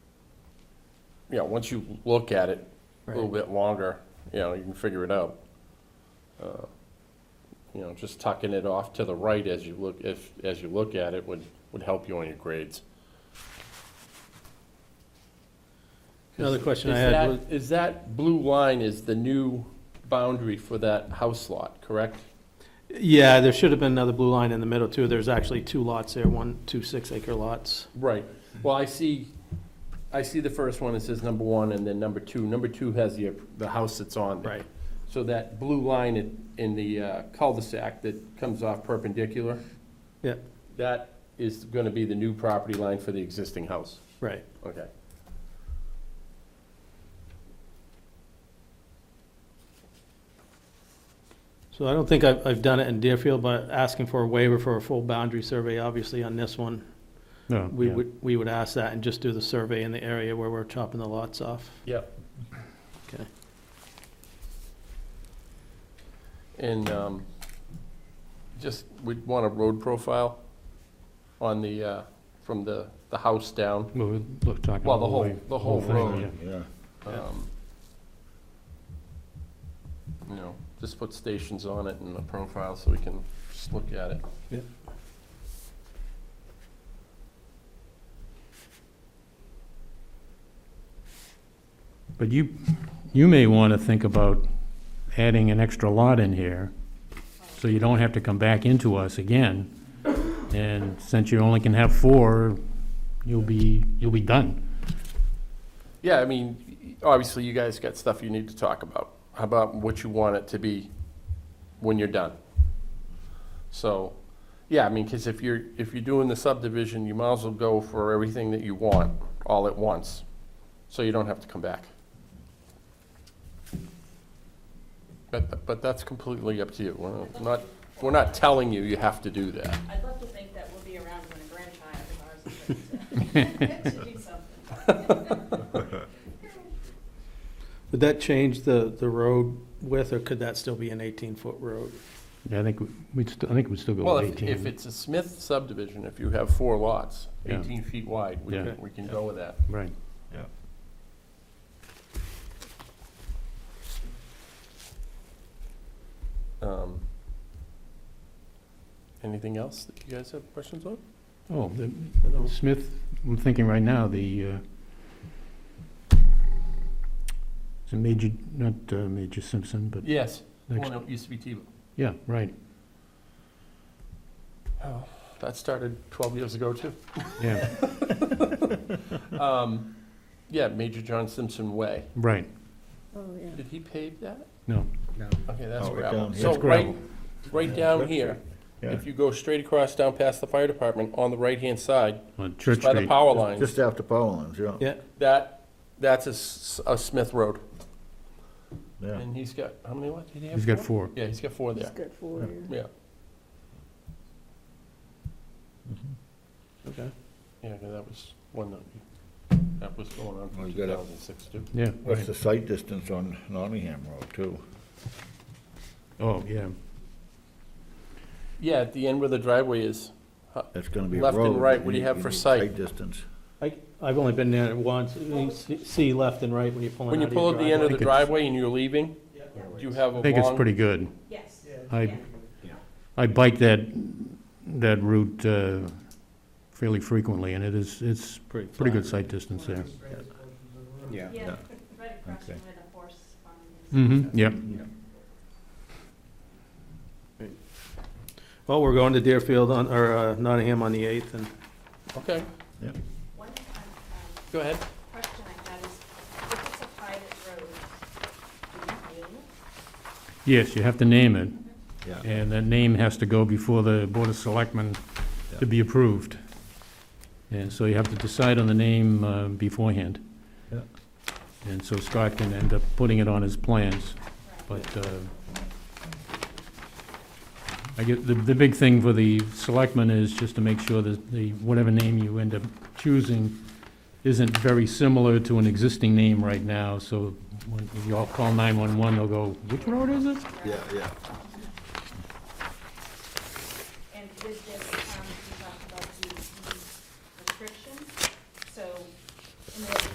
you know, once you look at it a little Right. bit longer, you know, you can figure it out. Uh, You know, just tucking it off to the right as you look, if, as you look at it would, would help you on your grades. Another question Is I had that, was, is that blue line is the new boundary for that house lot, correct? yeah, there should have been another blue line in the middle too. There's actually two lots there, one, two six-acre lots. Right. Well, I see, I see the first one, it says number one, and then number two. Number two has the, the house that's on there. Right, So that blue line in, in the uh, cul-de-sac that comes off perpendicular, yeah, that is gonna be the new property line for the existing house. right. Okay. So I don't think I've, I've done it in Deerfield, but asking for a waiver for a full boundary survey, obviously on this one, No. we yeah. would, we would ask that and just do the survey in the area where we're chopping the lots off. Yep. Okay. And, um, just, we'd want a road profile on the, uh, from the, the house down. Well, we'd look, talking. Well, the whole- way- the whole thing, road. yeah. Yeah, Yeah. um, You know, just put stations on it and the profile so we can just look at it. Yep. But you, you may want to think about adding an extra lot in here, so you don't have to come back into us again. And since you only can have four, you'll be, you'll be done. Yeah, I mean, obviously you guys got stuff you need to talk about. How about what you want it to be when you're done? So, yeah, I mean, because if you're, if you're doing the subdivision, you might as well go for everything that you want all at once, so you don't have to come back. But, but that's completely up to you. We're not, we're not telling you you have to do that. I'd love to think that we'll be around when a grandchild of ours is ready to- to do something. Would that change the, the road width, or could that still be an eighteen-foot road? Yeah, I think we- we'd, st- I think we'd still go Well, with if, eighteen. if it's a Smith subdivision, if you have four lots, Yeah. 18 feet wide, we Yeah. can, we can go with that. Right. Yeah. Um, Anything else that you guys have questions on? Oh, the Smith, I'm thinking right now, the, uh, it's a major, not uh, Major Simpson, but Yes. next, Well, no, it used to be Tebow. yeah, right, That started 12 years ago, too. yeah, Um, Yeah, Major John Simpson Way. right, Oh, yeah. Did he pave that? no. Okay, that's Oh, right gravel. down here. So That's right, gravel. right down here, yeah. if you go straight across down past the fire department, on the right-hand side, On Church by the Street. power lines, Just after power lines, Oh. yeah. Yeah, That, that's a S- a Smith Road, Yeah, and he's got, how many lots did he have? He's got four. Yeah, he's got four there, good for you. yeah, okay. yeah, 'cause that was one that, that was going on Well, from you Oh, got it. 2006 too. Yeah, what's right. the sight distance on Nottingham Road, too? Oh, yeah, Yeah, at the end where the driveway is, That's gonna be a road. Left and right, what do you have for need sight? Sight distance. I, I've only been there once, you see- see left and right when you're pulling when you out pull of at your the end of the driveway. think it's- driveway and you're leaving, you have a long. I think it's pretty good. Yes. I, Yeah. I bike that, that route uh, fairly frequently, and it is, it's pretty good sight distance there. Yeah, right across Okay. from where the horse farm is. Mm-hmm, yep, Well, we're going to Deerfield on, or uh, Nottingham on the eighth, and Okay, One um, um, go ahead. question I had is, if it's a private road, do you name it? yes, you have to name it, Yeah, and that name has to go before the Board of Selectmen to be approved. And so you have to decide on the name uh, beforehand. Yeah. And so Scott can end up putting it on his plans, but uh, I get, the, the big thing for the selectmen is just to make sure that the, whatever name you end up choosing isn't very similar to an existing name right now, so when you all call 911, they'll go, which road is it? yeah, yeah. And with this, um, you talked about the the restriction, so in the